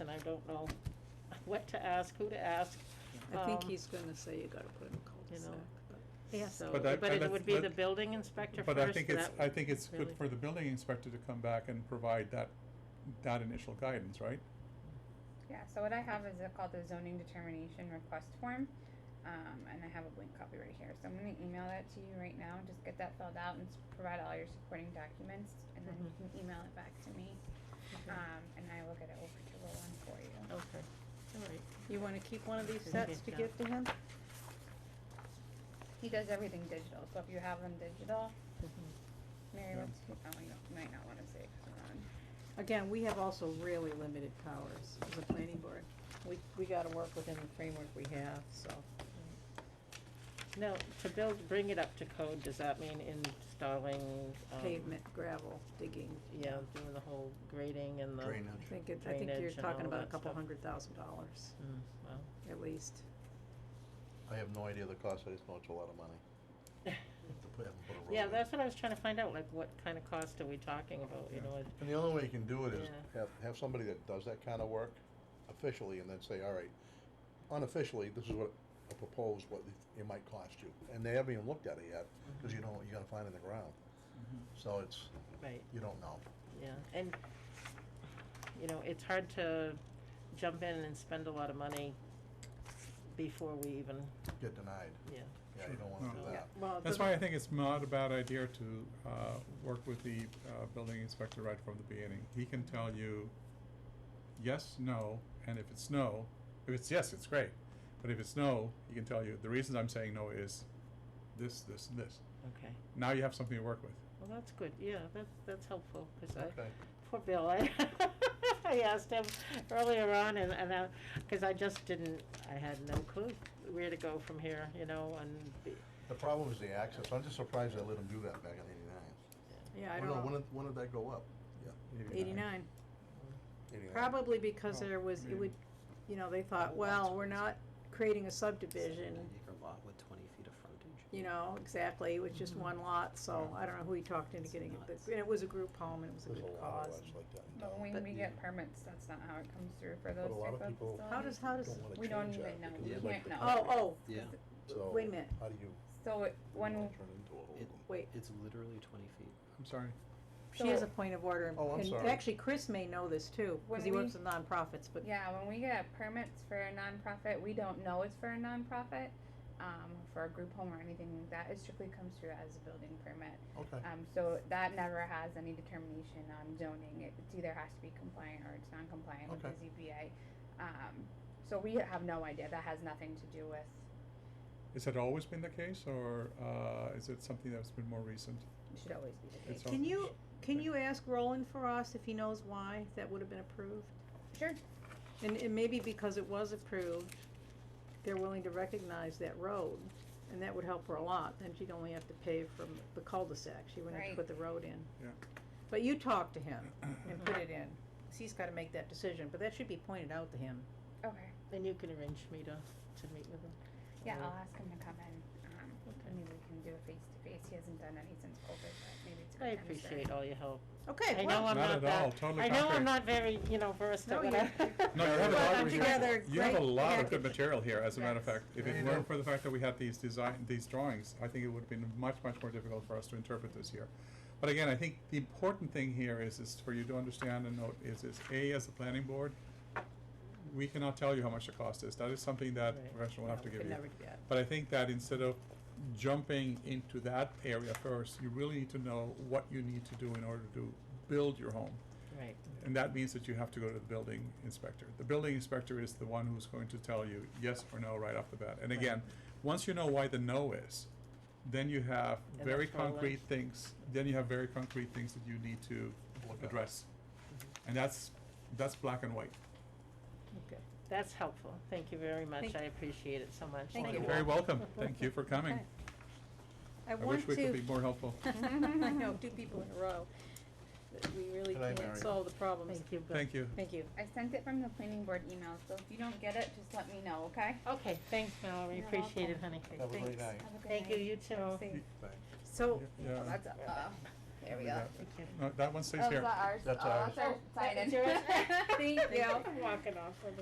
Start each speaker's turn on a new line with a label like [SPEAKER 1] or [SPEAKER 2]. [SPEAKER 1] and I don't know what to ask, who to ask.
[SPEAKER 2] I think
[SPEAKER 1] Um,
[SPEAKER 2] he's gonna say you gotta put in a
[SPEAKER 1] you
[SPEAKER 2] cul-de-sac.
[SPEAKER 1] know.
[SPEAKER 2] but-
[SPEAKER 3] Yes.
[SPEAKER 1] So,
[SPEAKER 4] But I-
[SPEAKER 1] but
[SPEAKER 4] but I-
[SPEAKER 1] it would be the
[SPEAKER 4] but-
[SPEAKER 1] building inspector first.
[SPEAKER 4] But I think it's,
[SPEAKER 1] that-
[SPEAKER 4] I think it's good
[SPEAKER 1] really-
[SPEAKER 4] for the building inspector to come back and provide that, that initial guidance, right?
[SPEAKER 5] Yeah, so what I have is uh, called the zoning determination request form, um, and I have a blank copy right here, so I'm gonna email that to you right now, just get that filled out and s- provide all your supporting documents, and then you
[SPEAKER 2] Mm-hmm.
[SPEAKER 5] can email it back to me,
[SPEAKER 1] Okay.
[SPEAKER 5] um, and I will get it over to Roland for you.
[SPEAKER 1] Okay, all right.
[SPEAKER 2] You wanna keep one of these
[SPEAKER 1] Okay.
[SPEAKER 2] sets to give to him?
[SPEAKER 5] He does everything digital, so if you have them digital, Mary
[SPEAKER 4] Yeah.
[SPEAKER 5] wants, to- oh, you don't- might not wanna say, it 'cause we're on.
[SPEAKER 2] Again, we have also really limited powers as a planning board. We, we gotta work within the framework we have, so.
[SPEAKER 1] Now, to build, bring it up to code, does that mean installing? um,
[SPEAKER 2] Pavement, gravel, digging.
[SPEAKER 1] Yeah, doing the whole grading and the.
[SPEAKER 2] I think it, I think you're
[SPEAKER 1] Drainage and
[SPEAKER 2] talking
[SPEAKER 1] all
[SPEAKER 2] about a
[SPEAKER 1] that
[SPEAKER 2] couple
[SPEAKER 1] stuff.
[SPEAKER 2] hundred thousand dollars,
[SPEAKER 1] Mm, well.
[SPEAKER 2] at least.
[SPEAKER 6] I have no idea the cost, I just know it's a lot of money to put, have 'em put a road
[SPEAKER 1] Yeah,
[SPEAKER 6] in.
[SPEAKER 1] that's what I was trying to find out, like, what kind of cost are we talking about, you know? it-
[SPEAKER 6] And the only way you can do it is
[SPEAKER 1] Yeah.
[SPEAKER 6] have, have somebody that does that kind of work officially and then say, all right, unofficially, this is what I propose, what it- it might cost you. And they haven't even looked at it yet, cause you don't, know what you're gonna find in the ground. So it's,
[SPEAKER 1] Right,
[SPEAKER 6] you don't know.
[SPEAKER 1] yeah, and, you know, it's hard to jump in and spend a lot of money before we even,
[SPEAKER 6] Get denied.
[SPEAKER 1] yeah.
[SPEAKER 6] Yeah, you don't wanna do
[SPEAKER 4] No.
[SPEAKER 1] Yeah.
[SPEAKER 6] that.
[SPEAKER 2] Well,
[SPEAKER 4] That's why I think it's not a bad idea to, uh, work with the, uh, building inspector right from the beginning. He can tell you yes, no, and if it's no, if it's yes, it's great. But if it's no, he can tell you, the reasons I'm saying no is this, this, and this.
[SPEAKER 1] Okay,
[SPEAKER 4] Now you have something to work with.
[SPEAKER 1] well, that's good, yeah, that's, that's helpful, cause I,
[SPEAKER 6] Okay.
[SPEAKER 1] poor Bill, I, I asked him earlier on and, and, uh, cause I just didn't, I had no clue where to go from here, you know, and, be-
[SPEAKER 6] The problem is the access. I'm just surprised I let them do that back in eighty-nine.
[SPEAKER 2] Yeah, I
[SPEAKER 6] Well, no,
[SPEAKER 2] don't
[SPEAKER 6] When
[SPEAKER 2] know.
[SPEAKER 6] did, when did that go up? Yeah.
[SPEAKER 2] Eighty-nine.
[SPEAKER 6] 89.
[SPEAKER 2] Probably because
[SPEAKER 4] Oh,
[SPEAKER 2] there was, it
[SPEAKER 4] maybe.
[SPEAKER 2] would, you know, they thought, well, we're not creating a subdivision,
[SPEAKER 7] An acre lot with twenty feet of frontage.
[SPEAKER 2] you know, exactly, it was just
[SPEAKER 6] Mm-hmm.
[SPEAKER 2] one lot, so I don't know who he talked into getting it, but,
[SPEAKER 7] Nuts.
[SPEAKER 2] and it was a group home, and it was a
[SPEAKER 6] There's a
[SPEAKER 2] good
[SPEAKER 6] lot of
[SPEAKER 2] cause.
[SPEAKER 6] lots like that in
[SPEAKER 5] But
[SPEAKER 6] town.
[SPEAKER 5] when
[SPEAKER 2] But-
[SPEAKER 5] we get permits, that's not how it comes through for those
[SPEAKER 6] But a lot
[SPEAKER 5] type
[SPEAKER 6] of
[SPEAKER 5] of
[SPEAKER 6] people
[SPEAKER 5] facilities.
[SPEAKER 2] How does, how does,
[SPEAKER 6] don't wanna
[SPEAKER 5] We don't
[SPEAKER 6] change
[SPEAKER 5] even
[SPEAKER 6] that
[SPEAKER 5] know.
[SPEAKER 6] because
[SPEAKER 7] We
[SPEAKER 6] it's like
[SPEAKER 5] can't
[SPEAKER 6] the
[SPEAKER 5] know.
[SPEAKER 2] oh,
[SPEAKER 6] property.
[SPEAKER 2] oh,
[SPEAKER 7] Yeah,
[SPEAKER 6] So
[SPEAKER 2] wait a minute.
[SPEAKER 6] How do you?
[SPEAKER 5] So it, when,
[SPEAKER 6] turn it into a
[SPEAKER 7] it,
[SPEAKER 6] hold'em?
[SPEAKER 2] wait,
[SPEAKER 7] it's literally twenty feet.
[SPEAKER 4] I'm sorry.
[SPEAKER 2] she has
[SPEAKER 5] So-
[SPEAKER 2] a point of order,
[SPEAKER 6] Oh, I'm
[SPEAKER 2] and
[SPEAKER 6] sorry.
[SPEAKER 2] actually, Chris may know this too,
[SPEAKER 5] When
[SPEAKER 2] cause he works
[SPEAKER 5] we-
[SPEAKER 2] with nonprofits, but,
[SPEAKER 5] Yeah, when we get permits for a nonprofit, we don't know it's for a nonprofit, um, for a group home or anything like that. It strictly comes through as a building permit.
[SPEAKER 6] Okay.
[SPEAKER 5] Um, so that never has any determination on zoning. It it's either has to be compliant or it's non-compliant with the ZBA. Um, so we have no idea. That has nothing to do with,
[SPEAKER 4] Has that always been the case, or uh, is it something that's been more recent?
[SPEAKER 5] it should always be the
[SPEAKER 4] It's
[SPEAKER 5] case.
[SPEAKER 4] all-
[SPEAKER 2] can you, can you ask Roland for us if he knows why that would have been approved?
[SPEAKER 5] Sure.
[SPEAKER 2] And, and maybe because it was approved, they're willing to recognize that road, and that would help her a lot, then she'd only have to pave from the cul-de-sac, she wouldn't have to put
[SPEAKER 5] Right.
[SPEAKER 2] the road in.
[SPEAKER 4] Yeah.
[SPEAKER 2] But you talk to him and put it in, 'cause he's gotta make that decision, but that should be pointed out to him.
[SPEAKER 5] Okay.
[SPEAKER 1] and you can arrange me to, to meet with them.
[SPEAKER 5] Yeah,
[SPEAKER 1] or-
[SPEAKER 5] I'll ask him to come in. Um,
[SPEAKER 1] Uh, Okay.
[SPEAKER 5] maybe we can do a face-to-face. He hasn't done any since COVID, but maybe it's a good
[SPEAKER 1] I
[SPEAKER 5] time to start.
[SPEAKER 1] appreciate all your help. I
[SPEAKER 2] Okay,
[SPEAKER 1] know
[SPEAKER 2] well,
[SPEAKER 1] I'm
[SPEAKER 4] Not
[SPEAKER 1] not
[SPEAKER 4] at
[SPEAKER 1] that.
[SPEAKER 4] all, totally
[SPEAKER 1] I know I'm
[SPEAKER 4] contrary.
[SPEAKER 1] not very, you know, versed
[SPEAKER 2] No,
[SPEAKER 1] at what
[SPEAKER 2] you-
[SPEAKER 1] I.
[SPEAKER 4] No, you
[SPEAKER 6] Well,
[SPEAKER 4] have a
[SPEAKER 6] put
[SPEAKER 4] lot of
[SPEAKER 2] together
[SPEAKER 4] You have a
[SPEAKER 2] great
[SPEAKER 4] lot of
[SPEAKER 2] package.
[SPEAKER 4] good material here, as a matter of
[SPEAKER 5] Yes.
[SPEAKER 4] fact. If
[SPEAKER 6] Yeah,
[SPEAKER 4] it
[SPEAKER 6] you do.
[SPEAKER 4] weren't for the fact that we had these design, these drawings, I think it would have been much, much more difficult for us to interpret this here. But again, I think the important thing here is, is for you to understand and note, is, is A, as a planning board, we cannot tell you how much the cost is. That is something that
[SPEAKER 1] Right.
[SPEAKER 4] professional will
[SPEAKER 2] No,
[SPEAKER 4] have to
[SPEAKER 2] we
[SPEAKER 4] give you.
[SPEAKER 2] could never do that.
[SPEAKER 4] But I think that instead of jumping into that area first, you really need to know what you need to do in order to build your home.
[SPEAKER 1] Right,
[SPEAKER 4] And that means that you have to go to the building inspector. The building inspector is the one who's going to tell you yes or no right off the bat. And again, once you know why the no is, then you have
[SPEAKER 1] And
[SPEAKER 4] very
[SPEAKER 1] that's all
[SPEAKER 4] concrete
[SPEAKER 1] life.
[SPEAKER 4] things, then you have very concrete things that you need to
[SPEAKER 6] Look at.
[SPEAKER 4] address. And that's, that's black and white.
[SPEAKER 2] okay,
[SPEAKER 1] that's helpful. Thank you very much.
[SPEAKER 2] Thank-
[SPEAKER 1] I appreciate it so much. Thank
[SPEAKER 2] Thank you.
[SPEAKER 1] you.
[SPEAKER 4] You're very welcome. Thank you for coming.
[SPEAKER 2] okay. I
[SPEAKER 4] I
[SPEAKER 2] want
[SPEAKER 4] wish
[SPEAKER 2] to.
[SPEAKER 4] we could be more helpful.
[SPEAKER 2] I know, two people in a row, that we really
[SPEAKER 6] Good night, Mary.
[SPEAKER 2] can't solve the problems.
[SPEAKER 1] Thank you. Bill.
[SPEAKER 4] Thank you.
[SPEAKER 2] Thank you.
[SPEAKER 5] I sent it from the planning board email, so if you don't get it, just let me know, okay?
[SPEAKER 1] Okay, thanks, Mallory.
[SPEAKER 5] You're
[SPEAKER 1] Appreciate it, honey.
[SPEAKER 6] Have a great
[SPEAKER 2] Thanks.
[SPEAKER 6] night.
[SPEAKER 5] Have a good
[SPEAKER 1] Thank you,
[SPEAKER 5] night.
[SPEAKER 1] you too.
[SPEAKER 5] Safe.
[SPEAKER 6] Thanks.
[SPEAKER 2] So,
[SPEAKER 4] Yeah.
[SPEAKER 5] Oh, that's, uh, yeah. There we
[SPEAKER 4] Do
[SPEAKER 5] go.
[SPEAKER 4] that.
[SPEAKER 1] Thank you.
[SPEAKER 4] No, that one stays
[SPEAKER 5] Oh, is
[SPEAKER 4] here.
[SPEAKER 5] that ours?
[SPEAKER 6] That's
[SPEAKER 5] Oh,
[SPEAKER 6] ours.
[SPEAKER 5] our
[SPEAKER 2] Oh,
[SPEAKER 5] sign-in.
[SPEAKER 2] that's yours?
[SPEAKER 5] Thank you.
[SPEAKER 1] I'm walking off with